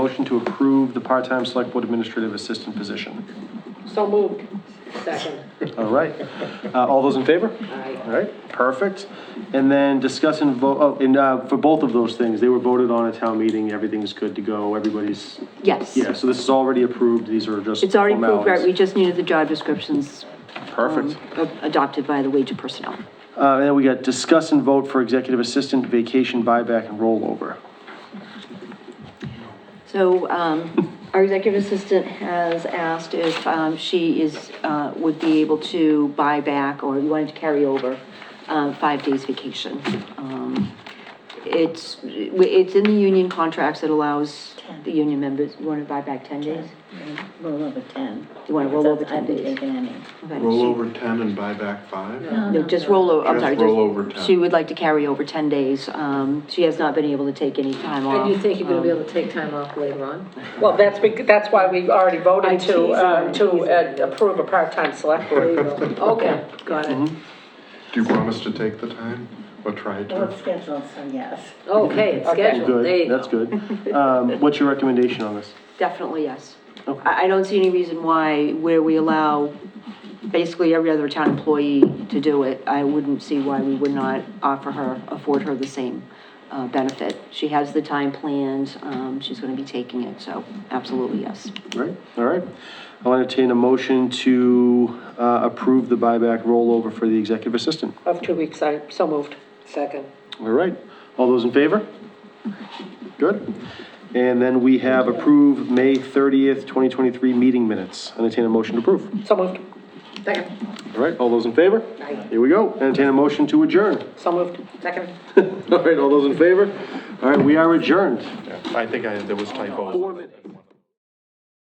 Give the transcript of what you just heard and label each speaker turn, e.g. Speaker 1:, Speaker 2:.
Speaker 1: Motion to approve the part-time select board administrative assistant position.
Speaker 2: So moved. Second.
Speaker 1: All right. Uh, All those in favor?
Speaker 2: Aye.
Speaker 1: All right, perfect. And then discuss and vote, oh, and uh, for both of those things, they were voted on at town meeting, everything's good to go, everybody's,
Speaker 3: Yes.
Speaker 1: yeah, so this is already approved, these are just
Speaker 3: It's already approved, right? We Mm-hmm.
Speaker 1: formalities.
Speaker 3: just needed the job descriptions
Speaker 1: Perfect.
Speaker 3: a- adopted by the wage and personnel.
Speaker 1: Uh, And then we got discuss and vote for executive assistant vacation buyback and rollover.
Speaker 3: So um, our executive assistant has asked if um, she is, uh, would be able to buy back or wanted to carry over uh, five days vacation. Um, It's, it's in the union contracts that allows the union members, you want to buy back 10 days?
Speaker 4: Roll over ten.
Speaker 3: You wanna roll over 10
Speaker 4: Because
Speaker 3: days?
Speaker 4: I've been taking any.
Speaker 3: Okay,
Speaker 5: Roll
Speaker 3: she-
Speaker 5: over 10 and buy back 5?
Speaker 3: No, just roll over, I'm
Speaker 5: Just
Speaker 3: sorry.
Speaker 5: roll over 10.
Speaker 3: She would like to carry over 10 days. Um, She has not been able to take any time off.
Speaker 2: And you think you're gonna be able to take time off later on?
Speaker 6: Well, that's, bec- that's why we already
Speaker 2: I
Speaker 6: voted to,
Speaker 2: tease her, I
Speaker 6: uh, to
Speaker 2: tease her.
Speaker 6: uh, approve a part-time select board.
Speaker 2: Okay, got
Speaker 1: Mm-hmm.
Speaker 2: it.
Speaker 5: Do you promise to take the time or try
Speaker 4: Well,
Speaker 5: to?
Speaker 4: it's scheduled, so yes.
Speaker 2: Okay, it's scheduled, there
Speaker 1: Good,
Speaker 2: you go.
Speaker 1: that's good. Um, What's your recommendation on this?
Speaker 3: Definitely, yes.
Speaker 1: Okay.
Speaker 3: I, I don't see any reason why, where we allow basically every other town employee to do it, I wouldn't see why we would not offer her, afford her the same uh, benefit. She has the time planned, um, she's gonna be taking it, so absolutely, yes.
Speaker 1: Right, all right. I'll entertain a motion to uh, approve the buyback rollover for the executive assistant.
Speaker 6: Of two weeks, I, so moved. Second.
Speaker 1: All right, all those in favor? Good. And then we have approved May 30th, 2023 meeting minutes. Entertain a motion to approve.
Speaker 6: So moved,
Speaker 2: Second.
Speaker 1: All right, all those in favor? Here we go. Entertain a motion to adjourn.
Speaker 6: so moved. Second.
Speaker 1: All right, all those in favor? All right, we are adjourned.
Speaker 5: I think I, there was typo.
Speaker 1: Four minutes.